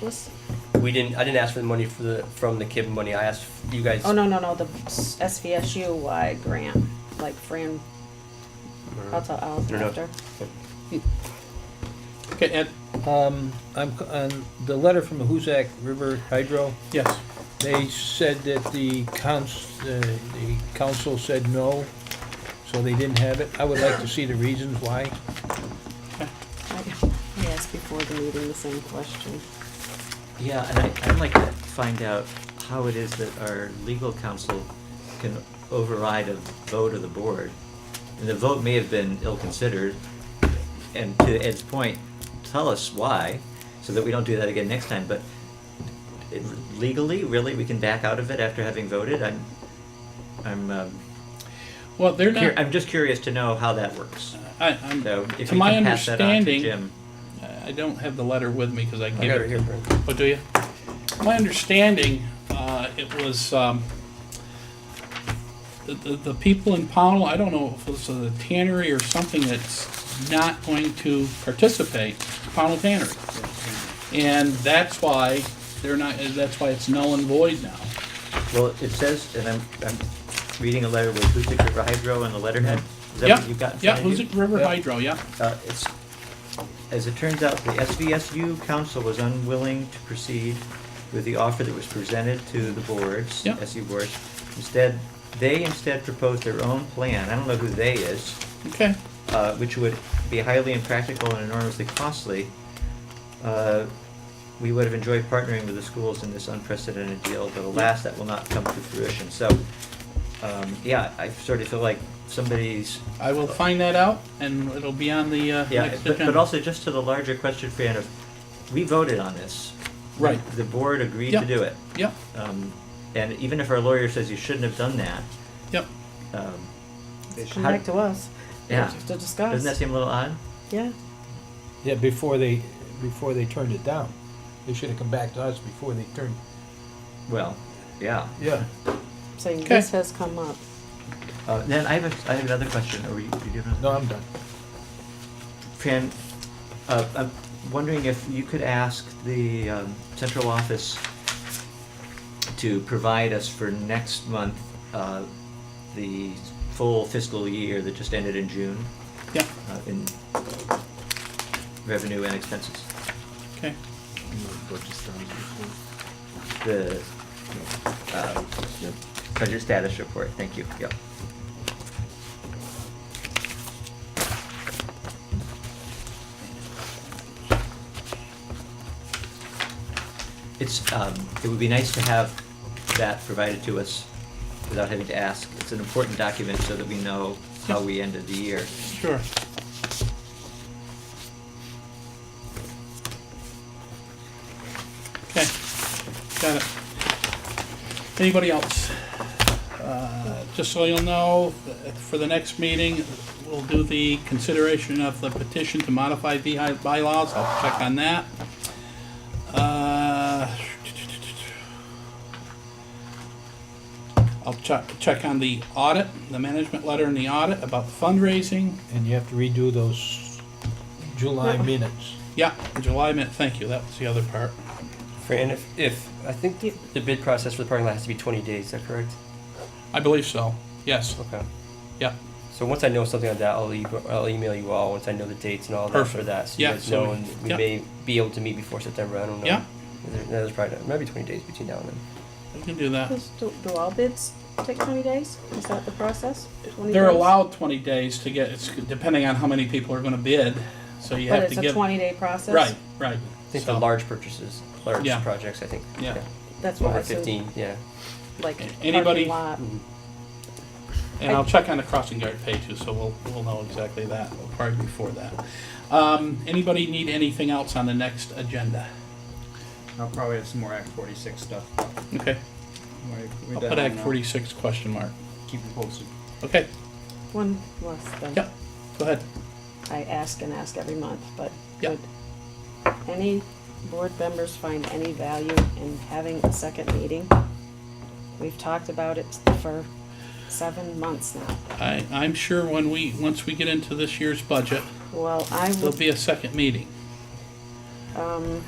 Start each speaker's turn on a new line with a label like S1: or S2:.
S1: This,
S2: We didn't, I didn't ask for the money for the, from the KIB money, I asked you guys.
S1: oh, no, no, no, the SVSU wide grant, like Fran, I'll tell Al
S2: No, no.
S1: after.
S3: Okay, Ed?
S4: Um, I'm, c- on the letter from the Hoosac River Hydro,
S3: Yes.
S4: they said that the council, the council said no, so they didn't have it. I would like to see the reasons why.
S1: I I asked before the meeting the same question.
S5: Yeah, and I, I'd like to find out how it is that our legal counsel can override a vote of the board. And the vote may have been ill-considered, and to Ed's point, tell us why, so that we don't do that again next time, but it- legally, really, we can back out of it after having voted? I'm, I'm, um,
S3: Well, they're
S5: cur-
S3: not,
S5: I'm just curious to know how that works.
S3: I, I'm,
S5: So if
S3: to
S5: you
S3: my
S5: can pass that on to
S3: understanding,
S5: Jim.
S3: I don't have the letter with me because I
S2: I
S3: gave
S2: got it
S3: it.
S2: here, Fran.
S3: Oh, do you? My understanding, uh, it was, um, the, the, the people in Pownell, I don't know if it was the tannery or something that's not going to participate, Pownell Tannery. And that's why they're not, that's why it's null and void now.
S5: Well, it says, and I'm, I'm reading a letter with Hoosick River Hydro on the letterhead. Is that
S3: Yep,
S5: what you've got in
S3: Mm-hmm. Yeah,
S5: front of you?
S3: Hoosick River
S4: Yeah.
S3: Hydro, yeah.
S5: Uh, it's, as it turns out, the SVSU council was unwilling to proceed with the offer that was presented to the boards,
S3: Yep.
S5: SU boards. Instead, they instead proposed their own plan, I don't know who they is,
S3: Okay,
S5: uh, which would be highly impractical and enormously costly. Uh, We would have enjoyed partnering with the schools in this unprecedented deal, but alas, that will not come to fruition. So, um, yeah, I sort of feel like somebody's
S3: I will find that out and it'll be on the, uh,
S5: yeah,
S3: next
S5: but,
S3: agenda.
S5: but also just to the larger question, Fran, of, we voted on this.
S3: Right.
S5: The board agreed
S3: Yeah.
S5: to do it.
S3: Yep,
S5: Um, and even if our lawyer says you shouldn't have done that,
S3: yep.
S5: um,
S1: Come
S5: how-
S1: back to us. We
S5: Yeah.
S1: have to
S5: doesn't that
S1: discuss,
S5: seem a little odd?
S1: yeah.
S4: Yeah, before they, before they turned it down. They should have come back to us before they turned,
S5: Well, yeah.
S4: yeah.
S1: Saying
S3: Okay.
S1: this has come up.
S5: Uh, then I have a, I have another question. Are you, you have
S4: No,
S5: another?
S4: I'm done.
S5: Fran, uh, I'm wondering if you could ask the, um, central office to provide us for next month, uh, the full fiscal year that just ended in June.
S3: Yeah,
S5: uh, in revenue and expenses.
S3: okay.
S5: The uh, budget status report, thank you, yep. It's, um, it would be nice to have that provided to us without having to ask. It's an important document so that we know how we ended the year.
S3: Sure. Okay, got it. Anybody else? Uh, Just so you'll know, th- for the next meeting, we'll do the consideration of the petition to modify the hy- bylaws. I'll check on that. Uh, I'll check, check on the audit, the management letter and the audit about fundraising.
S4: And you have to redo those July
S1: Yeah.
S4: minutes.
S3: Yeah, July minute, thank you, that was the other part.
S2: Fran, if, if, I think the, the bid process for the parking lot has to be twenty days, is that correct?
S3: I believe so, yes,
S2: Okay.
S3: yeah,
S2: So once I know something like that, I'll, e- I'll email you all, once I know the dates and all that for
S3: Perfect.
S2: that, so you
S3: Yeah,
S2: guys
S3: so
S2: know,
S3: we-
S2: and we
S3: yeah.
S2: may be able to meet before September, I don't know.
S3: Yeah.
S2: There- There's probably, not- maybe twenty days between now and then.
S3: we can do that.
S1: Does- Do, do all bids take twenty days? Is that the process? 20
S3: They're
S1: days?
S3: allowed twenty days to get, it's depending on how many people are gonna bid, so you
S1: But
S3: have to
S1: it's
S3: give.
S1: a twenty-day process?
S3: Right, right.
S2: I think
S3: So,
S2: the large purchases, large
S3: Yeah.
S2: projects, I think.
S3: Yeah.
S1: That's what I
S2: Over
S1: assumed,
S2: fifteen, yeah.
S1: like,
S3: Anybody-
S1: parking lot.
S3: And I'll check on the crossing guard pay too, so we'll, we'll know exactly that, probably before that. Um, anybody need anything else on the next agenda?
S6: I'll probably have some more Act forty-six stuff.
S3: Okay,
S6: Like, we
S3: I'll
S6: done
S3: put
S6: on
S3: Act
S6: that.
S3: forty-six question mark.
S6: Keep it posted.
S3: Okay,
S1: One less than.
S3: yeah, go ahead.
S1: I ask and ask every month, but
S3: Yeah.
S1: would any board members find any value in having a second meeting? We've talked about it for seven months now.
S3: I, I'm sure when we, once we get into this year's budget,
S1: Well, I
S3: there'll
S1: would,
S3: be a second meeting.
S1: um,